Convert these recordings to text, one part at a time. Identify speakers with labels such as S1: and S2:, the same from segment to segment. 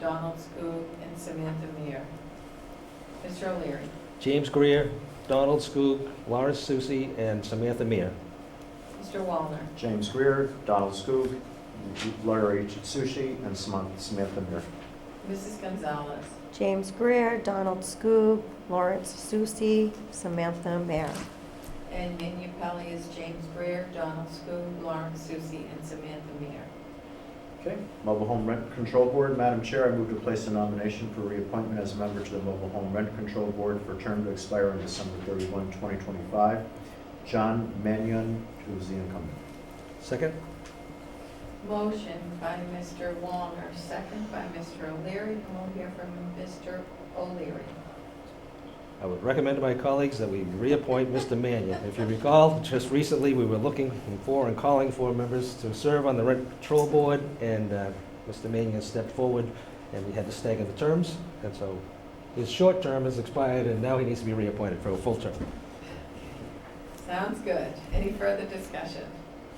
S1: Donald Skook, and Samantha Meyer. Mr. O'Leary.
S2: James Greer, Donald Skook, Lawrence Susi, and Samantha Mear.
S1: Mr. Wallner.
S3: James Greer, Donald Skook, Larry Sushi, and Samantha Samantha Muir.
S1: Mrs. Gonzalez.
S4: James Greer, Donald Scoop, Lawrence Susi, Samantha Mayer.
S1: And Manu Pelley is James Greer, Donald Skook, Lawrence Susi, and Samantha Meyer.
S3: Okay, Mobile Home Rent Control Board, Madam Chair, I move to place a nomination for reappointment as a member to the Mobile Home Rent Control Board for a term to expire on December 31, 2025. John Mannion, who's the incumbent.
S2: Second?
S1: Motion by Mr. Wallner, second by Mr. O'Leary, and we'll hear from Mr. O'Leary.
S2: I would recommend to my colleagues that we reappoint Mr. Mannion. If you recall, just recently, we were looking for and calling for members to serve on the Rent Control Board, and uh, Mr. Mannion stepped forward, and we had to stagger the terms, and so his short term has expired, and now he needs to be reappointed for a full term.
S1: Sounds good. Any further discussion?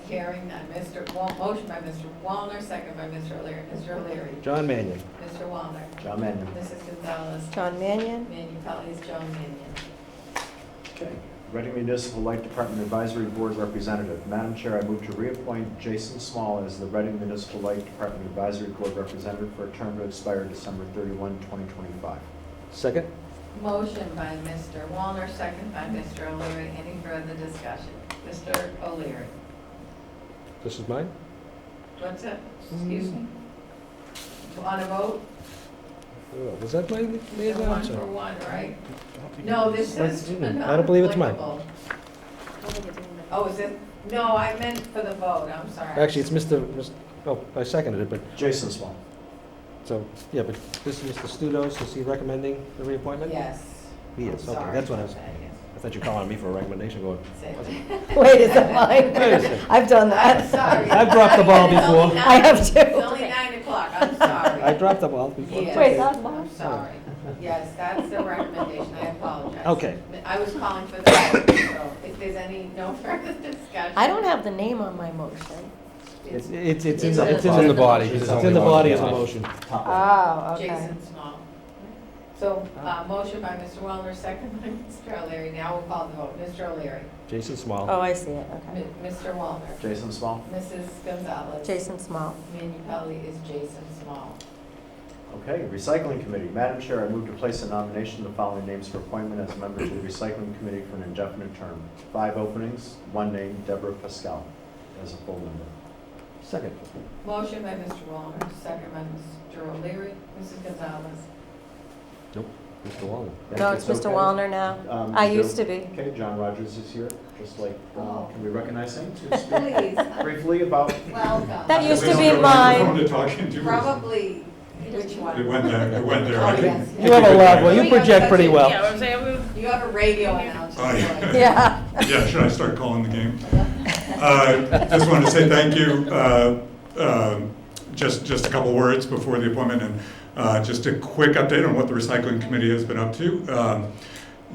S1: Hearing none. Mr. Wal, motion by Mr. Wallner, second by Mr. O'Leary. Mr. O'Leary.
S2: John Mannion.
S1: Mr. Wallner.
S3: John Mannion.
S1: Mrs. Gonzalez.
S4: John Mannion,
S1: Manu Pelley is Joan Mannion.
S3: Okay, Reading Municipal Light Department Advisory Board Representative. Madam Chair, I move to reappoint Jason Small as the Reading Municipal Light Department Advisory Board Representative for a term to expire December 31, 2025.
S2: Second?
S1: Motion by Mr. Wallner, second by Mr. O'Leary. Any further discussion? Mr. O'Leary.
S2: This is mine?
S1: What's it? Excuse me? On a vote?
S2: Oh, Was that my
S1: It's
S2: name?
S1: One for one, right? No, this is not
S2: I don't believe it's mine.
S1: applicable. Oh, is it? No, I meant for the vote. I'm sorry.
S2: Actually, it's Mr., Mis- oh, I seconded it, but
S3: Jason Small.
S2: So, yeah, but this is Mr. Studos, is he recommending the reappointment?
S1: Yes.
S2: He is, okay, that's what I was,
S1: Sorry
S2: I thought you were calling on me for a recommendation going.
S1: about that, yes.
S4: wait, is that
S2: Wait a
S4: mine?
S2: second.
S4: I've done that.
S1: Sorry.
S2: I've dropped the ball
S1: It's only
S2: before.
S1: nine-
S4: I have too.
S1: It's only nine o'clock. I'm sorry.
S2: I dropped the ball before.
S1: Yes.
S4: Wait, that's
S1: I'm
S4: mine?
S1: sorry. Yes, that's the recommendation. I apologize.
S2: Okay.
S1: I was calling for the vote, so if there's any, no further discussion.
S4: I don't have the name on my motion.
S1: It's
S2: It's, it's, in
S1: It's
S2: the-
S1: in
S2: it's
S1: the
S2: in the body,
S3: body.
S2: it's
S3: It's
S2: in
S3: only
S2: the
S3: one
S2: body as a
S3: body.
S2: motion.
S3: Top left.
S4: Oh,
S1: Jason Small. So, uh, motion by Mr. Wallner, second by Mr. O'Leary. Now we'll call the vote. Mr. O'Leary.
S2: Jason
S4: Oh,
S2: Small,
S4: I see it, okay.
S1: M- Mr. Wallner.
S3: Jason Small.
S1: Mrs. Gonzalez.
S4: Jason Small,
S1: Manu Pelley is Jason Small.
S3: Okay, Recycling Committee. Madam Chair, I move to place a nomination of the following names for appointment as a member to the Recycling Committee for an indefinite term. Five openings, one name, Deborah Pascal, as a full member.
S2: second.
S1: Motion by Mr. Wallner, second by Mr. O'Leary. Mrs. Gonzalez.
S2: Mr. Wallner.
S4: no, it's Mr. Wallner now.
S3: Um,
S4: I
S3: Joe-
S4: used to be.
S3: Okay, John Rogers is here, just like, uh, can we recognize him? to speak
S1: Please,
S3: Briefly about,
S1: welcome.
S4: That used to
S5: Please
S4: be
S5: don't
S4: mine.
S5: go to the talking to us.
S1: Probably, which one?
S5: It went there, it went there.
S1: Oh,
S5: I think-
S1: yes, yes.
S2: You have a lot, well,
S1: We
S2: you
S1: have
S2: project pretty
S1: such a-
S2: well.
S6: Yeah, I'm saying, we-
S1: You have a radio announcer.
S5: Oh, yeah.
S4: Yeah.
S5: Yeah, should I start calling the game? Uh, Just wanted to say thank you. uh, um, Just, just a couple words before the appointment, and uh, just a quick update on what the recycling committee has been up to. Um,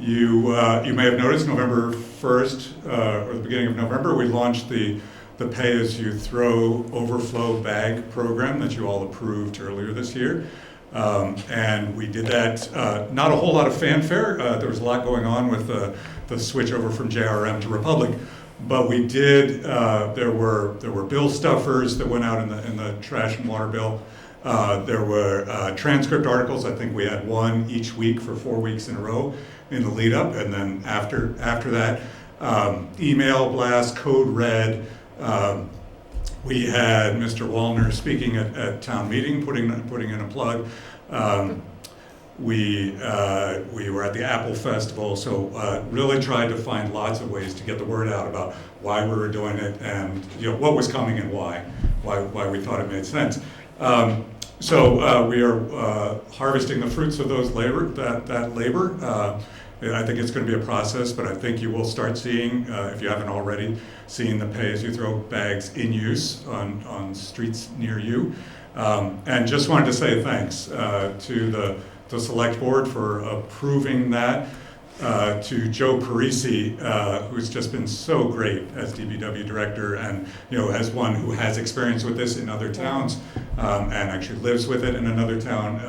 S5: You, uh, you may have noticed, November 1st, uh, or the beginning of November, we launched the, the pay-as-you-throw overflow bag program that you all approved earlier this year. Um, and we did that, uh, not a whole lot of fanfare. Uh, there was a lot going on with uh, the switch over from JRM to Republic. But we did, uh, there were, there were bill stuffers that went out in the, in the trash and water bill. Uh, there were uh, transcript articles. I think we had one each week for four weeks in a row in the lead up. And then after, after that, um, email blast, code red, um, we had Mr. Wallner speaking at, at town meeting, putting, putting in a plug. Um, we, uh, we were at the Apple Festival, so uh, really tried to find lots of ways to get the word out about why we were doing it and you know, what was coming and why, why, why we thought it made sense. Um, so uh, we are uh, harvesting the fruits of those labor, that, that labor. Uh, and I think it's going to be a process, but I think you will start seeing, uh, if you haven't already, seeing the pay-as-you-throw bags in use on, on streets near you. Um, and just wanted to say thanks uh, to the, the select board for approving that. uh, to Joe Parisi, uh, who's just been so great as DBW director, and you know, as one who has experience with this in other towns, um, and actually lives with it in another town,